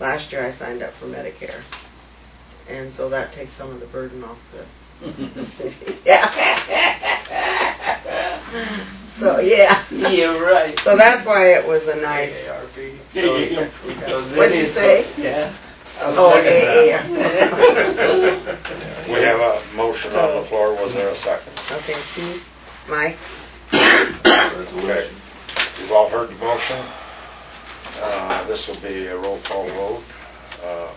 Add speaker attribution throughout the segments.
Speaker 1: Last year I signed up for Medicare. And so that takes some of the burden off the, the city. Yeah. so, yeah.
Speaker 2: Yeah, right.
Speaker 1: So that's why it was a nice. What'd you say?
Speaker 2: Yeah.
Speaker 1: Oh, yeah, yeah,
Speaker 3: We have a motion on the floor, was there a second?
Speaker 1: yeah. Okay, Keith, Mike,
Speaker 3: Okay. You've all heard the motion. Uh, This will be a roll call vote. Uh,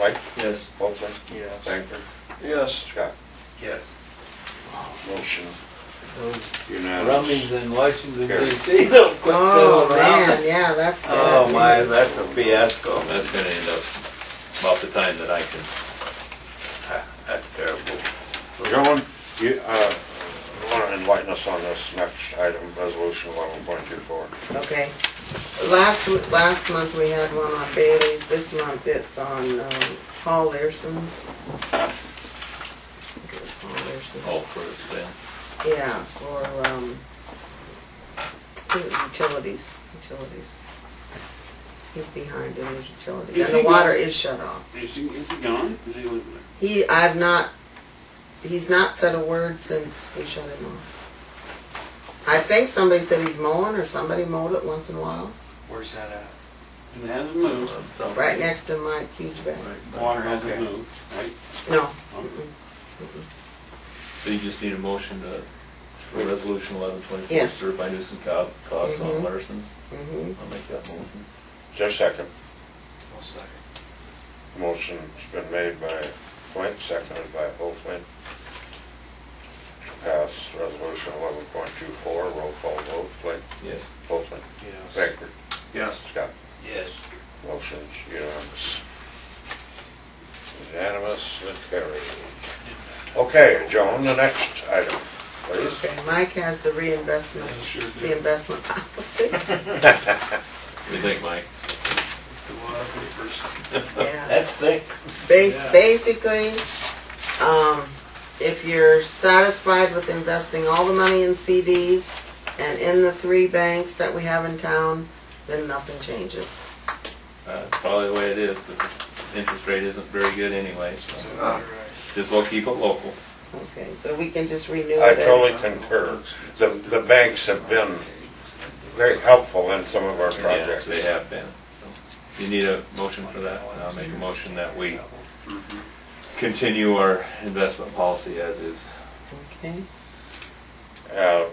Speaker 3: Mike?
Speaker 4: Yes.
Speaker 3: Bolton?
Speaker 4: Yes.
Speaker 3: Banker?
Speaker 4: Yes.
Speaker 3: Scott?
Speaker 4: Yes.
Speaker 3: Motion
Speaker 4: Those Rummies
Speaker 3: unanimous.
Speaker 4: in Washington
Speaker 3: Here.
Speaker 4: DC don't quit
Speaker 1: Oh,
Speaker 4: fooling
Speaker 1: man,
Speaker 4: around.
Speaker 1: yeah, that's bad.
Speaker 2: Oh my, that's a fiasco.
Speaker 5: That's gonna end up about the time that I can.
Speaker 2: Ah, That's terrible.
Speaker 3: John, you want to enlighten us on this next item, resolution 11.24?
Speaker 1: Okay. Last, m- last month we had one on Bailey's, this month it's on um, Paul Learson's. I think it was Paul Learson's.
Speaker 5: Oh, for then.
Speaker 1: Yeah, or, um, I think it was utilities, utilities. He's behind in his utilities,
Speaker 6: Is
Speaker 1: and the
Speaker 6: he
Speaker 1: water
Speaker 6: gone?
Speaker 1: is shut off.
Speaker 6: Is he, is he gone? Is he with
Speaker 1: He, I've not, he's not said a word since we shut him off. I think somebody said he's mowing, or somebody mowed it once in a while,
Speaker 4: Where's that at?
Speaker 6: It hasn't moved.
Speaker 5: Uh,
Speaker 1: right next to Mike Hugeback.
Speaker 6: Water hasn't
Speaker 4: Okay.
Speaker 6: moved, right?
Speaker 1: No,
Speaker 5: So you just need a motion to, for resolution eleven twenty-four,
Speaker 1: Yes.
Speaker 5: served by nuisance co- cause
Speaker 1: Mhm.
Speaker 5: on Larson's.
Speaker 1: mm-hmm,
Speaker 5: I'll make that motion.
Speaker 3: Is there a second?
Speaker 4: One second.
Speaker 3: Motion's been made by Flint, seconded by Flint. To pass resolution 11.24, roll call vote, Flint,
Speaker 5: Yes.
Speaker 3: Flint,
Speaker 4: Yes.
Speaker 3: Banker,
Speaker 6: Yes.
Speaker 3: Scott.
Speaker 2: Yes.
Speaker 3: Motion's unanimous. Unanimous and carried. Okay, Joan, the next item, please.
Speaker 1: okay, Mike has the reinvestment,
Speaker 6: Sure
Speaker 1: the
Speaker 6: did.
Speaker 1: investment policy,
Speaker 5: What do you think, Mike?
Speaker 6: The water first.
Speaker 1: yeah.
Speaker 2: That's thick.
Speaker 1: Bas-
Speaker 6: Yeah.
Speaker 1: Basically, um, if you're satisfied with investing all the money in CDs and in the three banks that we have in town, then nothing changes.
Speaker 5: Uh, it's probably the way it is, but the interest rate isn't very good anyway, so just we'll keep it local.
Speaker 1: Okay, so we can just renew
Speaker 3: I
Speaker 1: it
Speaker 3: totally
Speaker 1: as,
Speaker 3: concur. The, the banks have been very helpful in some of our
Speaker 5: Yes,
Speaker 3: projects.
Speaker 5: they have been, so. You need a motion for that, and I'll make a motion that we continue our investment policy as is.
Speaker 1: okay?
Speaker 3: Uh,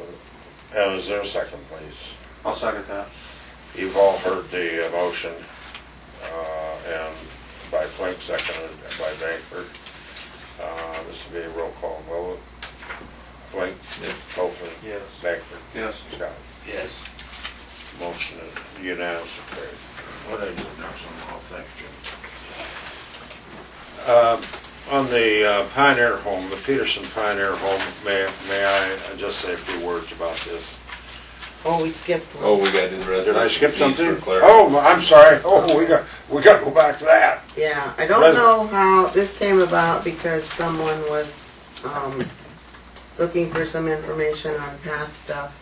Speaker 3: uh, Is there a second, please?
Speaker 6: I'll second that.
Speaker 3: You've all heard the uh, motion, uh, and by Flink, seconded by Bankford. Uh, This will be a roll call vote. Flink,
Speaker 5: Yes.
Speaker 3: Copeland,
Speaker 4: Yes.
Speaker 3: Bankford,
Speaker 6: Yes.
Speaker 3: Scott.
Speaker 2: Yes.
Speaker 3: Motion is unanimous and carried. What I do next on all things, Jim? On the uh, Pine Air Home, the Peterson Pine Air Home, may, may I just say a few words about this?
Speaker 1: Oh, we skipped
Speaker 5: Oh,
Speaker 1: one.
Speaker 5: we gotta do the resolution.
Speaker 3: Did I skip
Speaker 5: fees
Speaker 3: something?
Speaker 5: for clarity.
Speaker 3: Oh, I'm sorry. Oh, we got, we got to go back to that.
Speaker 1: Yeah, I don't
Speaker 3: President.
Speaker 1: know how this came about because someone was, um, looking for some information on past stuff.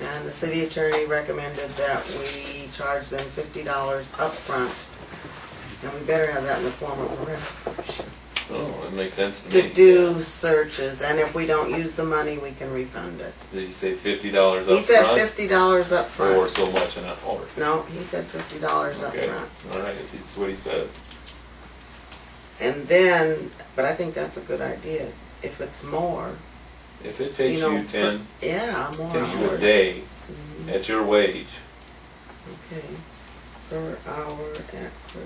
Speaker 1: And the city attorney recommended that we charge them fifty dollars upfront. And we better have that in the form of a resolution.
Speaker 5: Oh, that makes sense to me.
Speaker 1: To do searches, and if we don't use the money, we can refund it.
Speaker 5: Did he say fifty dollars
Speaker 1: He
Speaker 5: up
Speaker 1: said
Speaker 5: front
Speaker 1: fifty dollars
Speaker 5: or
Speaker 1: upfront.
Speaker 5: so much an hour?
Speaker 1: No, he said fifty dollars
Speaker 5: Okay,
Speaker 1: upfront.
Speaker 5: all right, that's what he said.
Speaker 1: And then, but I think that's a good idea. If it's more,
Speaker 5: If it takes
Speaker 1: know,
Speaker 5: you ten,
Speaker 1: yeah, more
Speaker 5: takes you a
Speaker 1: hours.
Speaker 5: day
Speaker 1: Mhm.
Speaker 5: at your wage,
Speaker 1: Okay, per hour at Clerksville.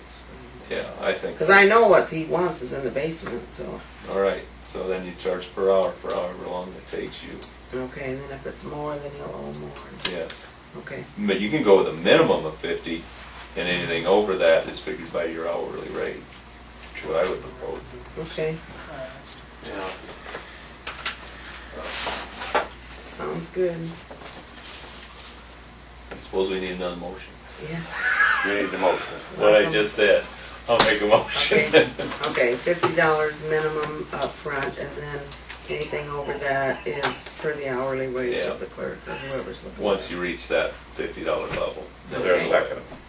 Speaker 5: yeah, I think.
Speaker 1: Because I know what he wants is in the basement, so,
Speaker 5: All right, so then you charge per hour for however long it takes you,
Speaker 1: okay, and then if it's more, then he'll owe more,
Speaker 5: yes.
Speaker 1: okay.
Speaker 5: But you can go with a minimum of fifty, and anything over that is figured by your hourly rate, which is what I would propose.
Speaker 1: Okay,
Speaker 2: Yeah.
Speaker 1: sounds good,
Speaker 5: I suppose we need another motion.
Speaker 1: yes.
Speaker 3: You need the motion.
Speaker 5: What I just said, I'll make a motion.
Speaker 1: Okay. Okay, fifty dollars minimum up front, and then anything over that is per the hourly wage
Speaker 5: Yeah.
Speaker 1: of the clerk or whoever's looking.
Speaker 5: Once you reach that fifty dollar level.
Speaker 3: Is there a second?